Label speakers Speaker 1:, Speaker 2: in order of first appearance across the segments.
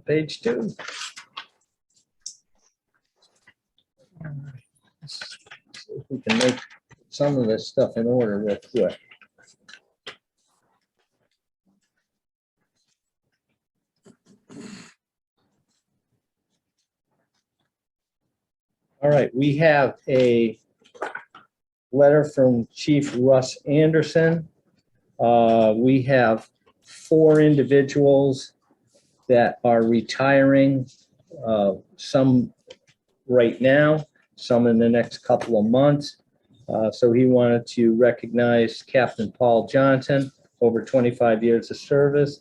Speaker 1: page two. All right. Let's see If we can make some of this stuff in order uh, real quick. All right, we have a letter from Chief Russ Anderson. Uh, We have four individuals that are retiring, uh, some right now, some in the next couple of months. Uh, So he wanted to recognize Captain Paul Johnson, over 25 years of service.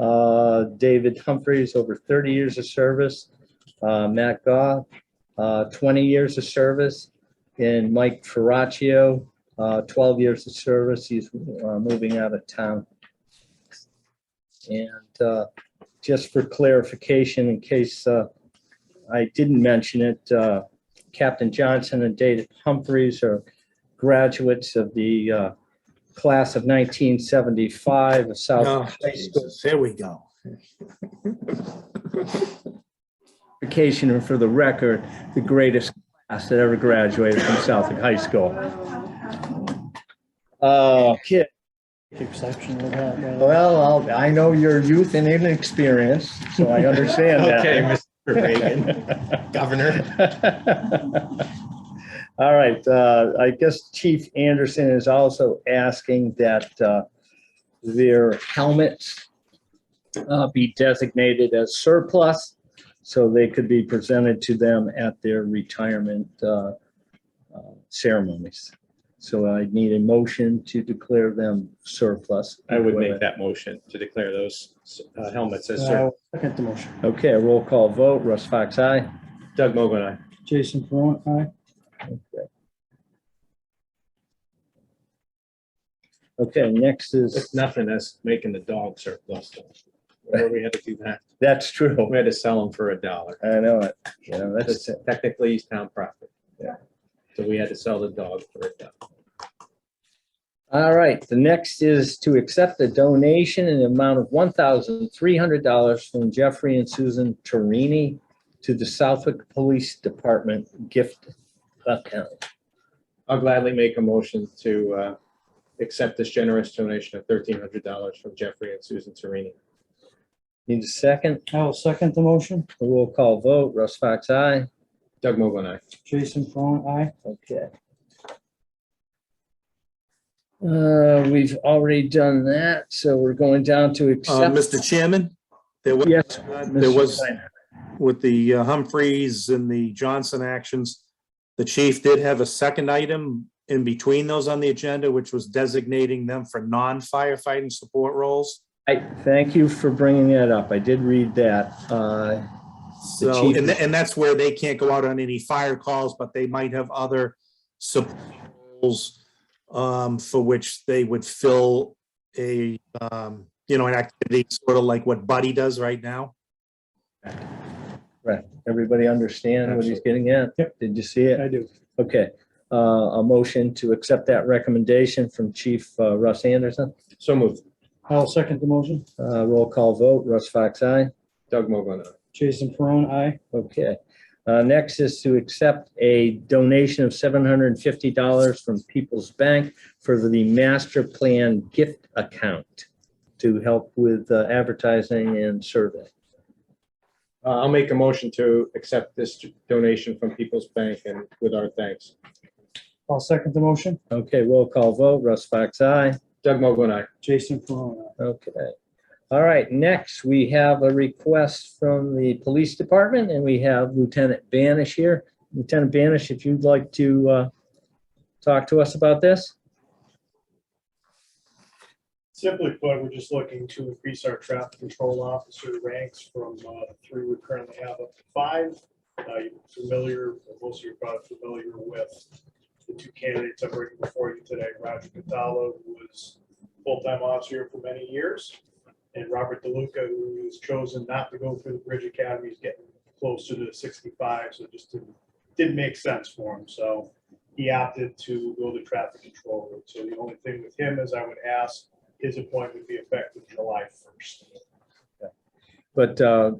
Speaker 1: uh, David Humphreys, over 30 years of service. uh, Matt Goff, uh, 20 years of service. And Mike Ferraccio, uh, 12 years of service. He's uh, moving out of town. And uh, just for clarification, in case uh, I didn't mention it, uh, Captain Johnson and David Humphreys are graduates of the uh, class of 1975 of
Speaker 2: Oh,
Speaker 1: South High School.
Speaker 2: Jesus, Here we go.
Speaker 1: Vacation and for the record, the greatest class that ever graduated from Southwick High School. Uh, kid,
Speaker 3: exception of that. right?
Speaker 1: well, I'll- I know your youth and inexperience, so I understand that.
Speaker 4: Okay, Mr. Reagan, Governor.
Speaker 1: All right, uh, I guess Chief Anderson is also asking that uh, their helmets uh, be designated as surplus, so they could be presented to them at their retirement uh, uh, ceremonies. So I need a motion to declare them surplus.
Speaker 4: I would make that motion to declare those uh, helmets as
Speaker 3: Uh,
Speaker 4: sur-
Speaker 3: I'll Second the motion.
Speaker 1: Okay, roll call vote. Russ Fox, aye.
Speaker 4: Doug Mogul and I.
Speaker 3: Jason Perron, aye.
Speaker 1: Okay, next is,
Speaker 4: It's nothing as making the dog surplus. Where we had to do that.
Speaker 1: that's true.
Speaker 4: We had to sell them for a dollar.
Speaker 1: I know it. You know, that's
Speaker 4: That's technically he's town profit.
Speaker 1: Yeah.
Speaker 4: So we had to sell the dog for a dollar.
Speaker 1: All right, the next is to accept a donation in the amount of one thousand three hundred dollars from Jeffrey and Susan Torini to the Southwick Police Department gift account.
Speaker 4: I'll gladly make a motion to uh, accept this generous donation of thirteen hundred dollars from Jeffrey and Susan Serini.
Speaker 1: Need a second?
Speaker 3: I'll second the motion.
Speaker 1: A Roll call vote. Russ Fox, aye.
Speaker 4: Doug Mogul and I.
Speaker 3: Jason Perron, aye.
Speaker 1: Okay. Uh, we've already done that, so we're going down to
Speaker 2: Uh,
Speaker 1: accept.
Speaker 2: Mr. Chairman, there was,
Speaker 1: Yes.
Speaker 2: there
Speaker 1: Mr.
Speaker 2: was,
Speaker 1: Steiner.
Speaker 2: with the uh, Humphreys and the Johnson actions, the chief did have a second item in between those on the agenda, which was designating them for non-firefighting support roles.
Speaker 1: I thank you for bringing that up. I did read that. Uh, The
Speaker 2: So,
Speaker 1: chief-
Speaker 2: and, tha- and that's where they can't go out on any fire calls, but they might have other support roles um, for which they would fill a, um, you know, an activity sort of like what Buddy does right now.
Speaker 1: Right, everybody understand what he's getting at? Yep. Did you see it?
Speaker 3: I do.
Speaker 1: Okay, uh, a motion to accept that recommendation from Chief uh, Russ Anderson.
Speaker 4: So moved.
Speaker 3: I'll second the motion.
Speaker 1: Uh, roll call vote, Russ Fox, aye.
Speaker 4: Doug Mogul and I.
Speaker 3: Jason Perron, aye.
Speaker 1: Okay, uh, next is to accept a donation of seven hundred and fifty dollars from People's Bank for the master plan gift account to help with uh, advertising and survey.
Speaker 4: Uh, I'll make a motion to accept this donation from People's Bank and with our thanks.
Speaker 3: I'll second the motion.
Speaker 1: Okay, roll call vote, Russ Fox, aye.
Speaker 4: Doug Mogul and I.
Speaker 3: Jason Perron, aye.
Speaker 1: Okay. All right, next, we have a request from the police department, and we have Lieutenant Banish here. Lieutenant Banish, if you'd like to uh, talk to us about this?
Speaker 5: Simply put, we're just looking to increase our traffic control officer ranks from uh, the three we currently have up to five. Uh, You're Familiar, most of you are probably familiar with the two candidates I'm bringing before you today. Roger Catalo, who was full-time officer for many years, and Robert DeLuca, who has chosen not to go through the Bridge Academy, is getting closer to 65, so it just didn't, didn't make sense for him. So he opted to go the traffic control route. So the only thing with him is I would ask his appointment would be effective July first.
Speaker 1: But uh,